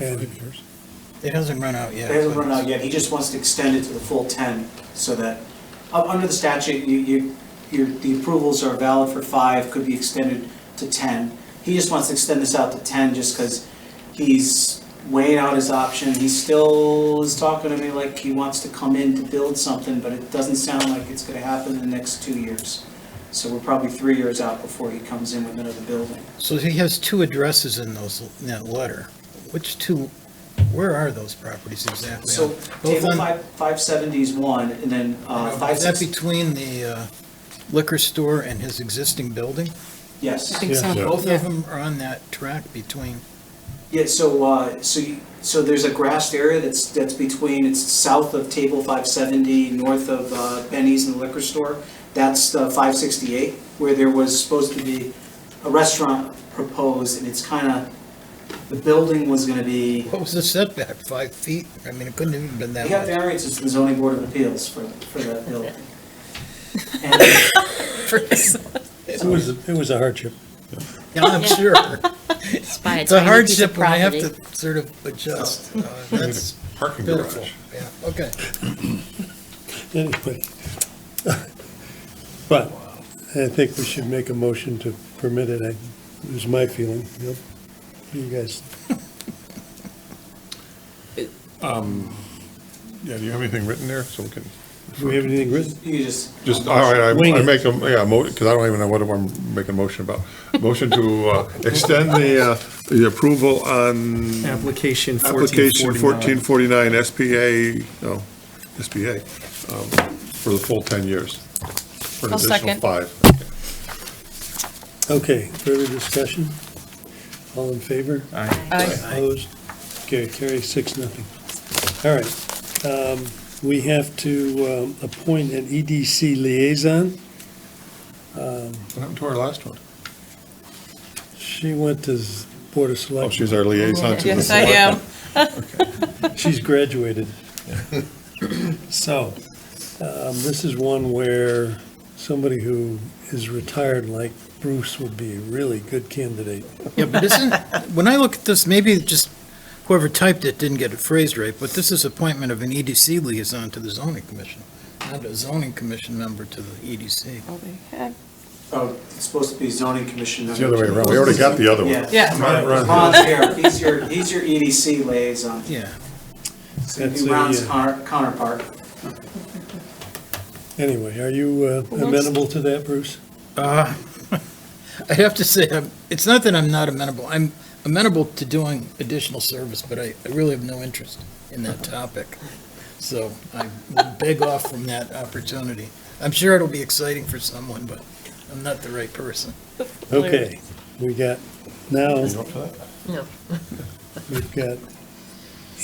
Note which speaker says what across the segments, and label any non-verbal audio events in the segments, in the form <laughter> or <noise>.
Speaker 1: And
Speaker 2: It hasn't run out yet.
Speaker 3: It hasn't run out yet, he just wants to extend it to the full 10, so that, u- under the statute, you, you, your, the approvals are valid for five, could be extended to 10. He just wants to extend this out to 10, just because he's weighing out his option, he still is talking to me like he wants to come in to build something, but it doesn't sound like it's gonna happen in the next two years. So we're probably three years out before he comes in with another building.
Speaker 2: So he has two addresses in those, in that letter. Which two, where are those properties exactly?
Speaker 3: So,
Speaker 2: Both
Speaker 3: table
Speaker 2: on-
Speaker 3: five, 570 is one, and then, uh,
Speaker 2: Is that
Speaker 3: 560,
Speaker 2: between the uh, liquor store and his existing building?
Speaker 3: yes.
Speaker 4: I think so.
Speaker 1: Yeah.
Speaker 2: Both of
Speaker 4: Yeah.
Speaker 2: them are on that track between,
Speaker 3: Yeah, so, uh, so you, so there's a grassed area that's, that's between, it's south of Table five seventy, north of, uh, Benny's and the liquor store. That's the five sixty-eight, where there was supposed to be a restaurant proposed, and it's kinda, the building was gonna be,
Speaker 2: what was the setback, five feet? I mean, it couldn't have even been
Speaker 3: they
Speaker 2: that
Speaker 3: <laughs> got
Speaker 2: much.
Speaker 3: variances from the zoning board of appeals for, for that building. And,
Speaker 1: it was, it was a hardship.
Speaker 2: Yeah, I'm sure.
Speaker 4: It's by a
Speaker 2: <laughs> It's a
Speaker 4: tiny piece
Speaker 2: hardship
Speaker 4: of
Speaker 2: when they have
Speaker 4: property.
Speaker 2: to sort of adjust. Uh, That's
Speaker 5: Parking
Speaker 2: pitiful,
Speaker 5: garage.
Speaker 2: yeah, okay.
Speaker 1: Anyway. <laughs> But I think we should make a motion to permit it, I- it was my feeling, you know? You guys,
Speaker 5: Yeah, do you have anything written there so we can,
Speaker 1: do we have anything written?
Speaker 3: you just.
Speaker 5: just, all right, I
Speaker 1: Wing
Speaker 5: I
Speaker 1: it.
Speaker 5: make a, yeah, because I don't even know what I'm making a motion about. Motion to uh, extend the, uh, the approval on
Speaker 6: Application
Speaker 5: application
Speaker 6: 1449.
Speaker 5: 1449 SPA, no, SPA, um, for the full 10 years. For an
Speaker 4: I'll second.
Speaker 5: additional five.
Speaker 1: Okay, further discussion? All in favor?
Speaker 4: Aye.
Speaker 1: Opposed? Okay, carry six, nothing. All right, um, we have to um, appoint an EDC liaison.
Speaker 5: What happened to our last one?
Speaker 1: She went to s- Board of
Speaker 5: Oh,
Speaker 1: Selectmen.
Speaker 5: she's our liaison to the.
Speaker 4: Yes, I am.
Speaker 1: She's graduated. So, um, this is one where somebody who is retired like Bruce would be a really good candidate.
Speaker 2: Yeah, but isn't, when I look at this, maybe just whoever typed it didn't get it phrased right, but this is appointment of an EDC liaison to the zoning commission, not a zoning commission member to the E EDC.
Speaker 3: Oh, it's supposed to be zoning commission.
Speaker 5: It's the other way around. We already got the other one.
Speaker 3: Yeah.
Speaker 4: Yeah.
Speaker 5: Right, right.
Speaker 3: Ron's here, he's your, he's your EDC liaison.
Speaker 2: Yeah,
Speaker 3: So it'd be
Speaker 1: That's a,
Speaker 3: Ron's
Speaker 1: uh,
Speaker 3: counter- counterpart.
Speaker 1: Anyway, are you uh, amenable to that, Bruce?
Speaker 2: uh, I have to say, I'm- it's not that I'm not amenable, I'm amenable to doing additional service, but I, I really have no interest in that topic. So I would beg off from that opportunity. I'm sure it'll be exciting for someone, but I'm not the right person.
Speaker 1: Okay, we got, now,
Speaker 5: You up for that?
Speaker 1: we've got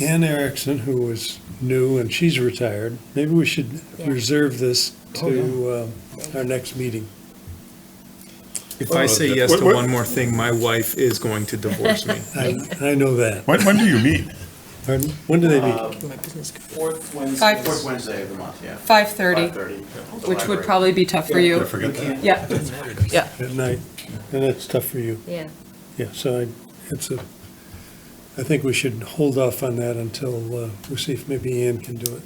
Speaker 1: Ann Erickson, who was new, and she's retired. Maybe we should reserve this to um, our next meeting.
Speaker 6: If I say yes
Speaker 5: Wait,
Speaker 6: to
Speaker 5: wait.
Speaker 6: one more thing, my wife is going to divorce me.
Speaker 1: I I know that.
Speaker 5: When, when do you meet?
Speaker 1: Pardon? When do they meet?
Speaker 3: Fourth Wednesday.
Speaker 7: Five- Fourth Wednesday of the month, yeah.
Speaker 4: 5:30,
Speaker 7: 5:30.
Speaker 4: which would probably be tough for
Speaker 5: Did I
Speaker 4: you.
Speaker 5: forget that?
Speaker 4: Yeah,
Speaker 1: At night? And that's tough for you.
Speaker 8: Yeah.
Speaker 1: Yeah, so I, it's a, I think we should hold off on that until, uh, we see if maybe Ann can do it.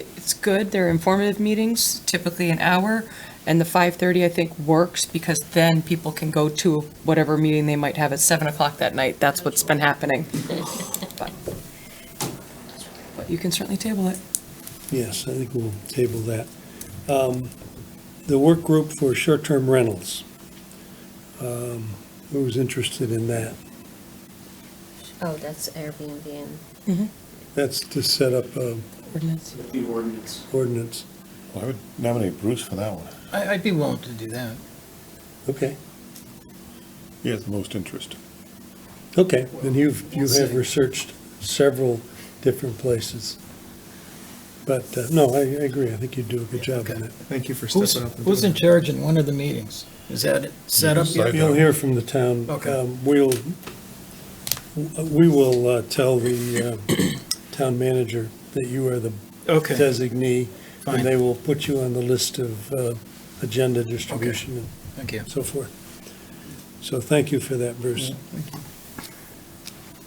Speaker 9: it- it's good, they're informative meetings, typically an hour, and the 5:30, I think, works, because then people can go to whatever meeting they might have at 7 o'clock that night, that's what's
Speaker 2: <laughs>
Speaker 9: been happening. But but you can certainly table it.
Speaker 1: Yes, I think we'll table that. Um, The work group for short-term rentals. Um, Who's interested in that?
Speaker 8: Oh, that's Airbnb and
Speaker 1: That's to set up uh,
Speaker 9: Ordinance.
Speaker 3: The ordinance.
Speaker 1: ordinance.
Speaker 5: Well, I would nominate Bruce for that one.
Speaker 2: I, I'd be willing to do that.
Speaker 1: Okay,
Speaker 5: He has the most interest.
Speaker 1: okay, and you've, you
Speaker 2: We'll
Speaker 1: have
Speaker 2: see.
Speaker 1: researched several different places. But, uh, no, I I agree, I think you do a good job on that.
Speaker 6: <laughs> Thank you for
Speaker 2: Who's,
Speaker 6: stepping up. and
Speaker 2: who's
Speaker 6: doing
Speaker 2: in charge in one of the meetings? Is that it set up
Speaker 5: Decide
Speaker 2: yet?
Speaker 1: You'll hear from the town.
Speaker 2: Okay.
Speaker 1: Um, We'll, we will uh, tell the uh, town manager that you are the
Speaker 2: Okay,
Speaker 1: designee,
Speaker 2: Fine.
Speaker 1: and they will put you on the list of uh, agenda distribution
Speaker 2: thank you.
Speaker 1: and so forth. So thank you for that, Bruce.